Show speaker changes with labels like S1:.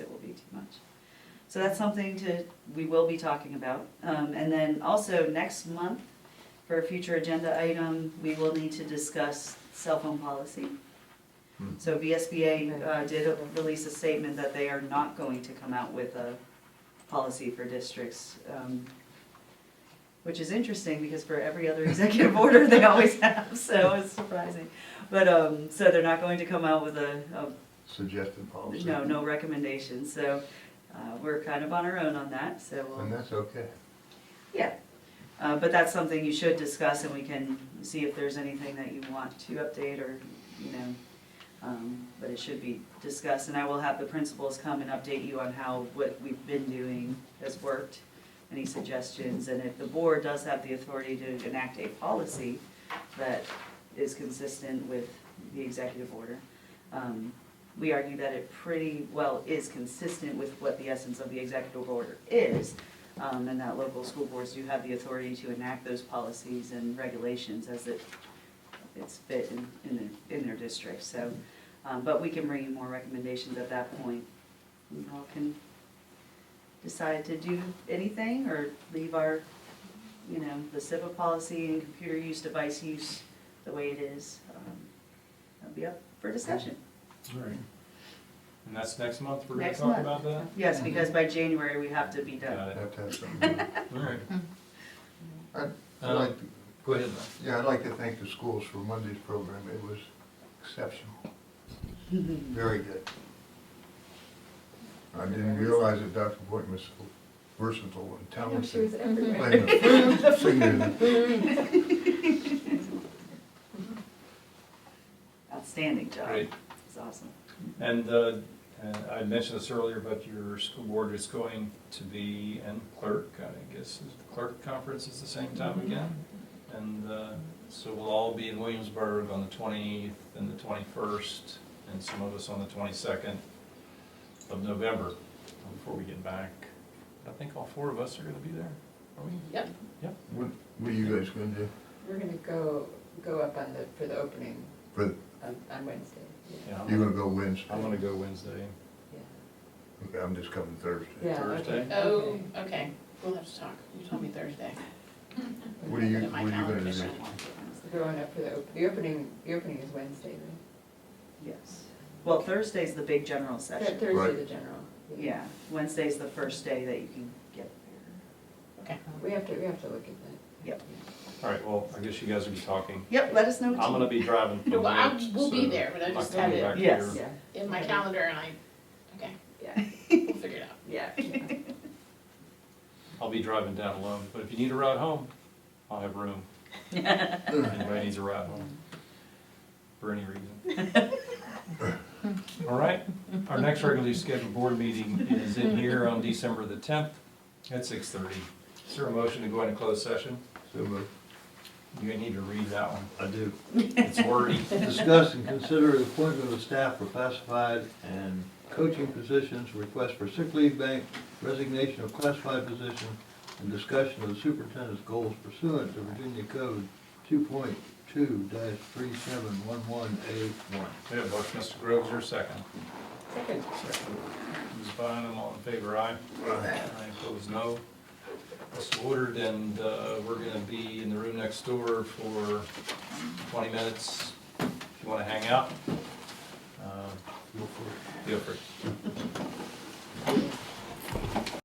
S1: So that's something to, we will be talking about. Um, and then also next month, for a future agenda item, we will need to discuss cell phone policy.
S2: Hmm.
S1: So VSBA uh, did release a statement that they are not going to come out with a policy for districts. um, Which is interesting because for every other executive order, they always have, so it's surprising. But, um, so they're not going to come out with a, a
S2: suggested policy.
S1: no, no recommendations, so uh, we're kind of on our own on that, so
S2: And
S1: we'll,
S2: that's okay.
S1: yeah. Uh, But that's something you should discuss, and we can see if there's anything that you want to update or, you know, um, but it should be discussed, and I will have the principals come and update you on how what we've been doing has worked, any suggestions, and if the board does have the authority to enact a policy that is consistent with the executive order, um, we argue that it pretty well is consistent with what the essence of the executive order is, um, and that local school boards do have the authority to enact those policies and regulations as it, it's fit in, in their, in their district, so. Um, but we can bring you more recommendations at that point. You all can decide to do anything or leave our, you know, the CIPA policy and computer use, device use the way it is. Um, That'll be up for discussion.
S3: All right. And that's next month, we're gonna
S1: Next
S3: talk
S1: month.
S3: about that?
S1: Yes, because by January, we have to be done.
S3: Mm-hmm. Got it.
S2: That has something.
S3: All right.
S1: Mm-hmm.
S2: I'd I'd
S3: Um,
S2: like, to-
S3: Go ahead,
S2: yeah, I'd like to thank the schools for Monday's program. It was exceptional, very good. I didn't realize that Dr. Boynton was so versatile and
S4: No, she was
S2: talented.
S4: everywhere.
S2: Playing the singing.
S1: Outstanding job.
S3: Great.
S1: It's awesome.
S3: Lynn. And, uh, and I mentioned this earlier, but your school board is going to be, and clerk, I guess, is the clerk conference is the same time
S1: Mm-hmm.
S3: again? And, uh, so we'll all be in Williamsburg on the twentieth and the twenty-first, and some of us on the twenty-second of November, before we get back. I think all four of us are gonna be there, are we?
S4: Yep,
S2: What what are you guys gonna do
S4: we're gonna go, go up on the, for the opening
S2: for,
S4: on, on Wednesday. Yeah,
S3: Yeah, I'm-
S2: you're gonna go Wednesday?
S3: I'm gonna go Wednesday.
S4: yeah.
S2: Okay, I'm just coming Thursday.
S4: Yeah,
S3: Thursday?
S4: okay,
S5: Oh,
S4: okay.
S5: okay, we'll have to talk, you told me Thursday.
S2: What are you,
S5: Put it in
S2: what
S5: my
S2: are you
S5: calendar,
S2: gonna
S5: so
S2: do?
S5: I won't do it.
S4: We're Going up for the, op- the opening, the opening is Wednesday, right?
S1: Yes. Well, Thursday's the big general
S4: Th-
S1: session.
S2: Right.
S4: Thursday, the general.
S1: Yeah, Wednesday's the first day that you can get there.
S5: Okay,
S4: We have to, we have to look at
S1: Yep.
S3: All right, well, I guess you guys will be talking.
S1: Yep, let us know. what you-
S3: I'm gonna be driving. from
S5: Well, I
S3: Lynch,
S5: will be
S3: so
S5: there, but I
S3: I'm
S5: just
S3: coming
S5: had
S3: back
S5: it
S1: Yes.
S3: here.
S4: that. Yeah,
S5: in my calendar and I, okay,
S4: yeah,
S5: we'll figure it out.
S4: yeah.
S3: I'll be driving down alone, but if you need a ride home, I'll have room. Anybody needs a ride home, for any reason. All right, our next regularly scheduled board meeting is in here on December the tenth at six thirty. Is there a motion to go into closed session?
S2: So moved.
S3: You need to read that one,
S6: I do.
S3: it's wordy.
S6: Discuss and consider the appointment of staff for classified and coaching positions, request for sick leave bank, resignation of classified position, and discussion of the superintendent's goals pursuant to Virginia Code two point two three seven one one A one.
S3: We have a motion, Mr. Groves, your second.
S4: Second.
S3: Ms. Bynum, all in favor, aye? Aye. Opposed, no. It's ordered, and uh, we're gonna be in the room next door for 20 minutes. If you wanna hang out, uh, feel free.